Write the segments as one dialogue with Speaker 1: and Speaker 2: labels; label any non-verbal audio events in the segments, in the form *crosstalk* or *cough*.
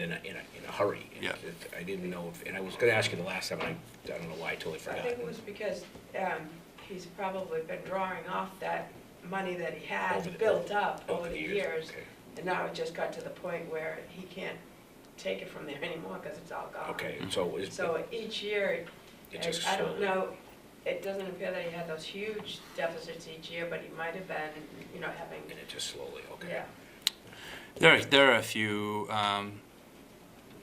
Speaker 1: in a, in a, in a hurry. and
Speaker 2: Yeah.
Speaker 1: it- I didn't know, if- and I was gonna ask you the last time, and I, I don't know why, I totally
Speaker 3: I
Speaker 1: forgot.
Speaker 3: think it was because um, he's probably been drawing off that money that he
Speaker 1: Over the-
Speaker 3: had built up
Speaker 1: over
Speaker 3: over
Speaker 1: the
Speaker 3: the
Speaker 1: years,
Speaker 3: years.
Speaker 1: okay.
Speaker 3: And now it just got to the point where he can't take it from there anymore because it's all gone.
Speaker 1: Okay, so is,
Speaker 3: um, So each year,
Speaker 1: It
Speaker 3: I-
Speaker 1: just
Speaker 3: I don't
Speaker 1: slowly-
Speaker 3: know, it doesn't appear that he had those huge deficits each year, but he might have been, you know, having,
Speaker 1: and it just slowly, okay.
Speaker 3: yeah.
Speaker 2: There, are- there are a few, um,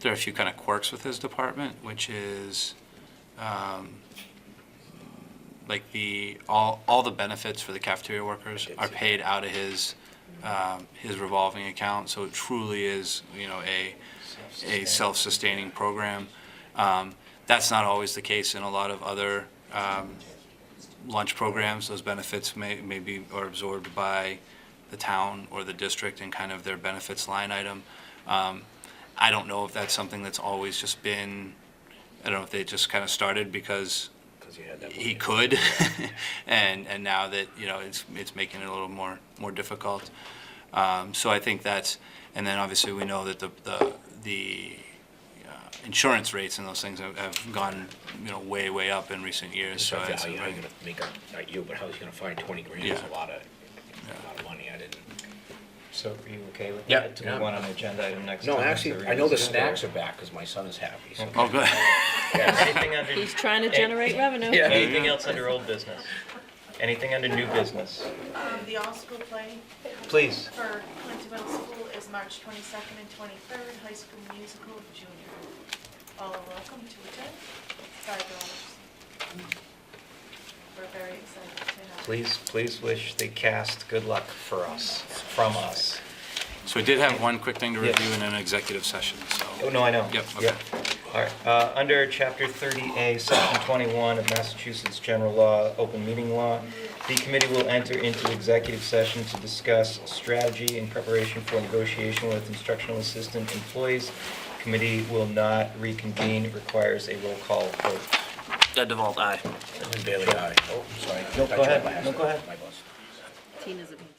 Speaker 2: there are a few kind of quirks with his department, which is, um, like the, all, all the benefits for the cafeteria workers are paid out of his, um, his revolving account, so it truly is, you know, a, a self-sustaining program. Um, That's not always the case in a lot of other um, lunch programs. Those benefits may, may be, are absorbed by the town or the district in kind of their benefits line item. Um, I don't know if that's something that's always just been, I don't know if they just kind of started because
Speaker 1: Because you had that.
Speaker 2: he
Speaker 1: one.
Speaker 2: could, *laughs* and and now that you know it's it's making it a little more more difficult. Um, so I think that's, and then obviously we know that the the the uh, insurance rates and those things have, have gone you know way way up in recent years.
Speaker 1: So
Speaker 2: So
Speaker 1: I
Speaker 2: it's,
Speaker 1: thought, how you how you gonna make up, not you, but how you gonna find twenty grand, is
Speaker 2: Yeah.
Speaker 1: a lot of, a lot of money, I didn't.
Speaker 4: So are you okay with
Speaker 1: Yeah.
Speaker 4: that? Do we want an agenda item next time?
Speaker 1: No,
Speaker 4: to
Speaker 1: actually, I know the
Speaker 4: revisit it?
Speaker 1: snacks are back, because my son is happy, so.
Speaker 2: oh good. *laughs*
Speaker 4: Anything under,
Speaker 5: He's trying to generate revenue.
Speaker 1: Yeah.
Speaker 4: anything else under old business? Anything under new business?
Speaker 6: Um, the all-school play
Speaker 4: Please.
Speaker 6: for Clinton Middle School is March 22nd and 23rd, high school musical junior. All are welcome to attend, five dollars. We're very excited to have.
Speaker 4: Please, please wish the cast good luck for us, from us.
Speaker 2: so we did have one quick thing to
Speaker 4: Yes.
Speaker 2: review in an executive session. So
Speaker 4: Oh, no, I know.
Speaker 2: Yep, okay.
Speaker 4: Yep. All right, uh, under Chapter 30A, Section 21 of Massachusetts General Law, Open Meeting Law, the committee will enter into executive session to discuss strategy in preparation for negotiation with instructional assistant employees. Committee will not reconvene, requires a roll call vote.
Speaker 2: Ed DeVault, aye.
Speaker 1: Bailey, I, oh, sorry.
Speaker 4: No, go
Speaker 1: I tried
Speaker 4: ahead.
Speaker 1: by
Speaker 4: No, go
Speaker 1: accident.
Speaker 4: ahead.
Speaker 1: My boss.
Speaker 5: Tina's a.